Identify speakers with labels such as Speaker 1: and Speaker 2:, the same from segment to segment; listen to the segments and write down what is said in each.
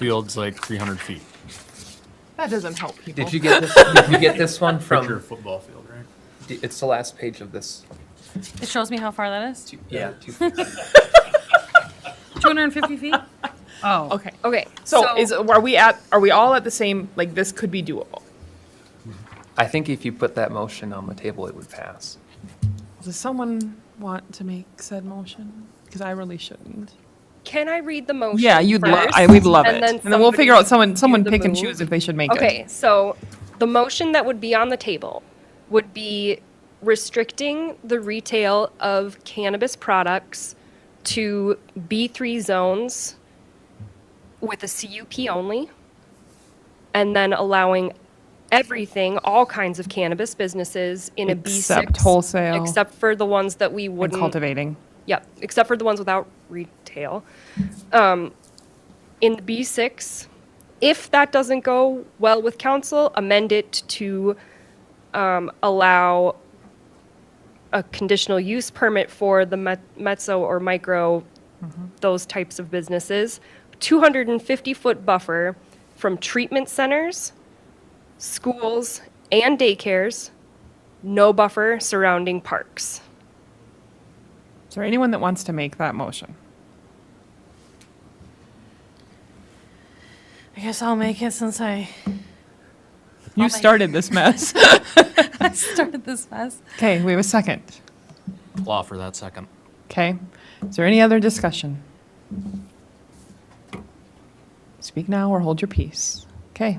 Speaker 1: field's like 300 feet.
Speaker 2: That doesn't help people.
Speaker 3: Did you get this? did you get this one
Speaker 1: Picture a
Speaker 3: Oh. from?
Speaker 1: football field, right?
Speaker 3: d- It's the last page of this.
Speaker 4: It shows me how far that is.
Speaker 3: Two, yeah. Two,
Speaker 4: 250 feet? Oh.
Speaker 2: Okay.
Speaker 4: Okay.
Speaker 2: So, is are we at are we all at the same like this could be doable?
Speaker 3: I think if you put that motion on the table, it would pass.
Speaker 2: Does someone want to make said motion? Because I really shouldn't.
Speaker 5: Can I read the motion?
Speaker 2: Yeah, you'd love.
Speaker 5: first,
Speaker 2: I would love
Speaker 5: and
Speaker 2: it,
Speaker 5: Then
Speaker 2: and then we'll figure out
Speaker 5: somebody
Speaker 2: someone someone
Speaker 5: do the
Speaker 2: pick and
Speaker 5: move?
Speaker 2: choose if they should make it.
Speaker 5: Okay, so the motion that would be on the table would be restricting the retail of cannabis products to B3 zones with a CUP only, and then allowing everything, all kinds of cannabis businesses in a B6.
Speaker 2: Except wholesale.
Speaker 5: Except for the ones that we
Speaker 2: And
Speaker 5: wouldn't
Speaker 2: cultivating.
Speaker 5: Yep, except for the ones without retail. Um, in B6, if that doesn't go well with council, amend it to um, allow a conditional use permit for the met- mezzo or micro, those types of businesses, 250-foot buffer from treatment centers, schools, and daycares, no buffer surrounding parks.
Speaker 2: Is there anyone that wants to make that motion?
Speaker 4: I guess I'll make it since I
Speaker 2: You
Speaker 4: make-
Speaker 2: started this mess.
Speaker 4: I started this mess.
Speaker 2: okay, we have a second.
Speaker 1: I'll offer that second.
Speaker 2: Okay, is there any other discussion? Speak now or hold your peace. Okay.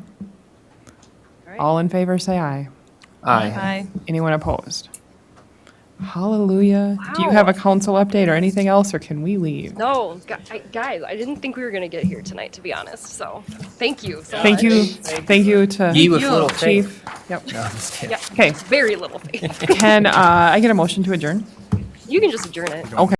Speaker 4: right.
Speaker 2: All in favor, say aye. Anyone opposed? Hallelujah. Do you have a council update or anything else, or can we leave?
Speaker 5: No, gu- I- guys, I didn't think we were gonna get here tonight, to be honest. So, thank you. So
Speaker 2: Thank
Speaker 5: much.
Speaker 2: you, thank you to
Speaker 3: Ye with little faith.
Speaker 2: Chief. Yep.
Speaker 5: Yeah,
Speaker 2: Okay,
Speaker 5: very little faith.
Speaker 2: can uh, I get a motion to adjourn?
Speaker 5: You can just adjourn it.
Speaker 2: Okay.